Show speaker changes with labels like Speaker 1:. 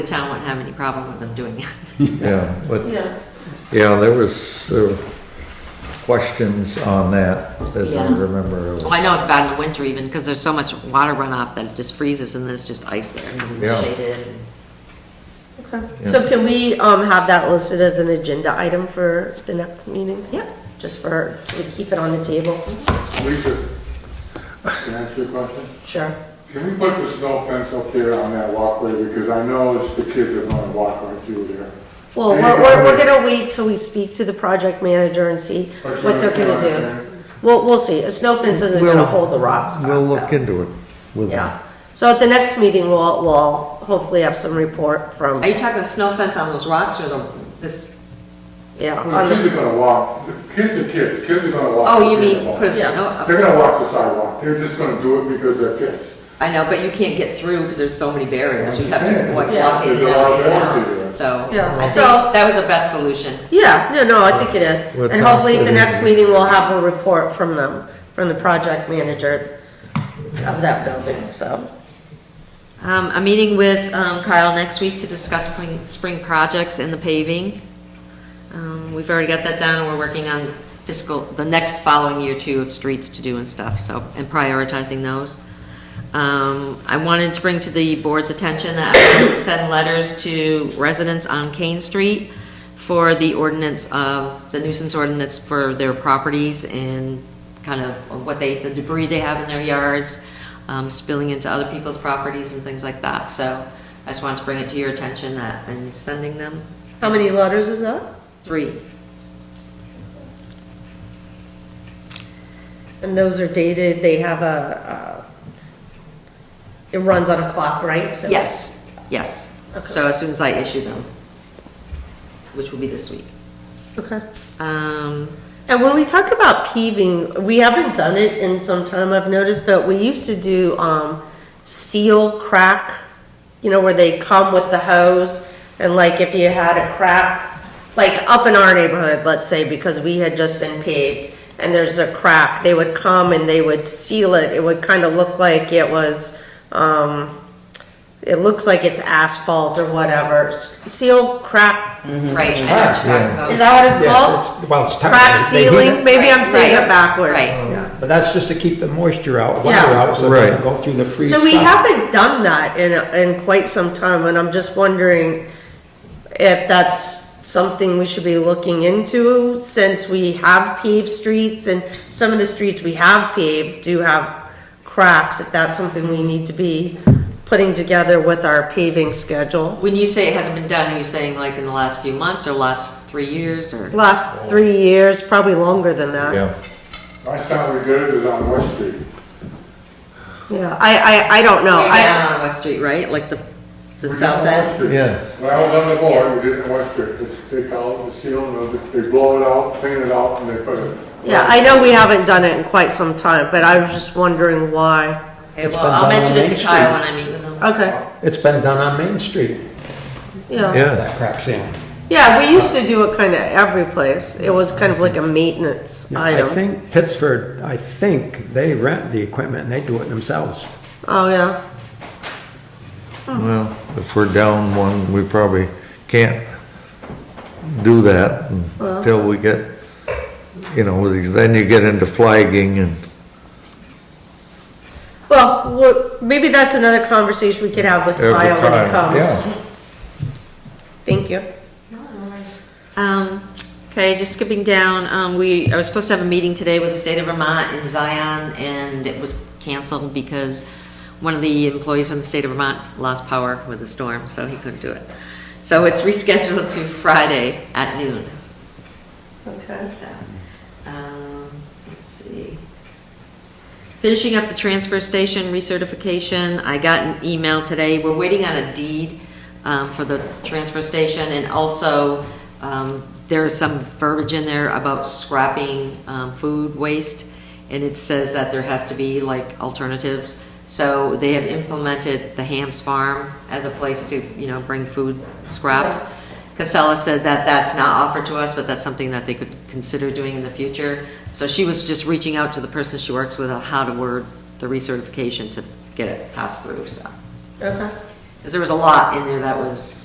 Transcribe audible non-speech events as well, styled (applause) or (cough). Speaker 1: the town wouldn't have any problem with them doing it. (laughs)
Speaker 2: Yeah, but,
Speaker 3: Yeah,
Speaker 2: yeah, there was uh, questions on that, as I
Speaker 1: Yeah.
Speaker 2: remember.
Speaker 1: Well, I know it's bad in the winter even, because there's so much water runoff that it just freezes and there's just ice there, because it's
Speaker 2: Yeah.
Speaker 1: shaded. and-
Speaker 3: okay.
Speaker 2: Yeah.
Speaker 3: So can we, um, have that listed as an agenda item for the next meeting?
Speaker 1: Yep.
Speaker 3: Just for, to keep it on the table?
Speaker 4: Lisa, can I ask you a question?
Speaker 3: Sure.
Speaker 4: Can we put the snow fence up there on that walkway, because I know it's the kids that are gonna walk right through there.
Speaker 3: Well, we're, we're, we're gonna wait till we speak to the project manager and see what they're gonna do. We'll, we'll see. A snow fence isn't gonna
Speaker 2: We'll-
Speaker 3: hold the rocks back.
Speaker 2: We'll look
Speaker 3: though.
Speaker 2: into it with them.
Speaker 3: Yeah. So at the next meeting, we'll, we'll hopefully have some report from,
Speaker 1: Are you talking a snow fence on those rocks or the, this,
Speaker 3: yeah,
Speaker 4: Well,
Speaker 3: on
Speaker 4: The kids
Speaker 3: the,
Speaker 4: are gonna walk, the kids are kids, kids are gonna walk.
Speaker 1: oh, you
Speaker 4: They're gonna
Speaker 1: mean
Speaker 4: walk.
Speaker 1: put a
Speaker 3: Yeah.
Speaker 1: snow?
Speaker 4: They're gonna walk the sidewalk, they're just gonna do it because they're kids.
Speaker 1: I know, but you can't get through because there's so many barriers. You have to walk
Speaker 3: Yeah.
Speaker 1: walk in and
Speaker 4: There's a lot of
Speaker 1: out,
Speaker 4: barriers
Speaker 1: yeah.
Speaker 4: there.
Speaker 1: so.
Speaker 3: Yeah.
Speaker 1: I think
Speaker 3: So-
Speaker 1: That was the best solution.
Speaker 3: yeah, no, no, I think it is.
Speaker 2: What
Speaker 3: And
Speaker 2: time
Speaker 3: hopefully at the
Speaker 2: it is?
Speaker 3: next meeting, we'll have a report from them, from the project manager of that building, so.
Speaker 1: Um, I'm meeting with um, Kyle next week to discuss spring, spring projects and the paving. Um, we've already got that down and we're working on fiscal, the next following year too of streets to do and stuff, so, and prioritizing those. Um, I wanted to bring to the board's attention that I want to send letters to residents on Kane Street for the ordinance, uh, the nuisance ordinance for their properties and kind of what they, the debris they have in their yards, um, spilling into other people's properties and things like that. So I just wanted to bring it to your attention that I'm sending them
Speaker 3: How many letters is that?
Speaker 1: three.
Speaker 3: And those are dated, they have a, uh, it runs on a clock, right? So-
Speaker 1: Yes, yes. So as soon as I issue them, which will be this week.
Speaker 3: Okay.
Speaker 1: Um,
Speaker 3: And when we talk about peeving, we haven't done it in some time, I've noticed, but we used to do, um, seal crack, you know, where they come with the hose, and like if you had a crack, like up in our neighborhood, let's say, because we had just been paved, and there's a crack, they would come and they would seal it, it would kind of look like it was, um, it looks like it's asphalt or whatever, S- seal crack,
Speaker 1: right, I know what you're talking about.
Speaker 3: Mm-hmm. is that what it's
Speaker 5: Yes,
Speaker 3: called?
Speaker 5: it's, well, it's.
Speaker 3: Crack
Speaker 5: technically- they heat
Speaker 3: sealing,
Speaker 5: it.
Speaker 3: maybe I'm saying
Speaker 1: Right,
Speaker 3: it backwards.
Speaker 1: Right.
Speaker 5: Yeah, But that's just to keep the moisture out, water
Speaker 3: Yeah.
Speaker 5: out, so it
Speaker 2: Right.
Speaker 5: doesn't go through the freeze
Speaker 3: So we
Speaker 5: stuff.
Speaker 3: haven't done that in, in quite some time, and I'm just wondering if that's something we should be looking into, since we have paved streets, and some of the streets we have paved do have cracks, if that's something we need to be putting together with our paving schedule.
Speaker 1: When you say it hasn't been done, are you saying like in the last few months or last three years or?
Speaker 3: Last three years, probably longer than that.
Speaker 2: Yeah,
Speaker 4: Last time we did it was on West Street.
Speaker 3: Yeah, I, I, I don't know.
Speaker 1: Way
Speaker 3: I,
Speaker 1: down on West Street, right? Like the, the
Speaker 4: We did it
Speaker 1: south
Speaker 4: on West
Speaker 1: end?
Speaker 4: Street.
Speaker 2: yes.
Speaker 4: When I was on the board, we did it on West Street, It's- they call it the seal, and they blow it out, clean it out, and they put it.
Speaker 3: yeah, I know we haven't done it in quite some time, but I was just wondering why.
Speaker 1: Okay,
Speaker 5: It's
Speaker 1: well,
Speaker 5: been
Speaker 1: I'll
Speaker 5: done on
Speaker 1: mention it to
Speaker 5: Main
Speaker 1: Kyle when I meet with him.
Speaker 3: Okay,
Speaker 5: It's been done on Main Street,
Speaker 3: yeah.
Speaker 2: Yeah,
Speaker 5: that crack sealing.
Speaker 3: Yeah, we used to do it kind of every place. It was kind of like a maintenance
Speaker 5: I
Speaker 3: item.
Speaker 5: think Pittsford, I think they rent the equipment and they do it themselves.
Speaker 3: Oh, yeah.
Speaker 2: well, if we're down one, we probably can't do that until we get, you know, then you get into flagging and,
Speaker 3: Well, what- maybe that's another conversation we could have with
Speaker 2: Every
Speaker 3: Kyle when
Speaker 2: time,
Speaker 3: he comes.
Speaker 2: yeah.
Speaker 3: Thank you.
Speaker 1: Um, okay, just skipping down, um, we, I was supposed to have a meeting today with the state of Vermont in Zion, and it was canceled because one of the employees from the state of Vermont lost power with the storm, so he couldn't do it. So it's rescheduled to Friday at noon.
Speaker 3: Okay.
Speaker 1: So, um, let's see. Finishing up the transfer station recertification, I got an email today, we're waiting on a deed, um, for the transfer station, and also, um, there is some verbiage in there about scrapping, um, food waste, and it says that there has to be like alternatives, so they have implemented the Hams Farm as a place to, you know, bring food scraps. Casella said that that's not offered to us, but that's something that they could consider doing in the future. So she was just reaching out to the person she works with on how to word the recertification to get it passed through, so.
Speaker 3: Okay.
Speaker 1: Because there was a lot in there that was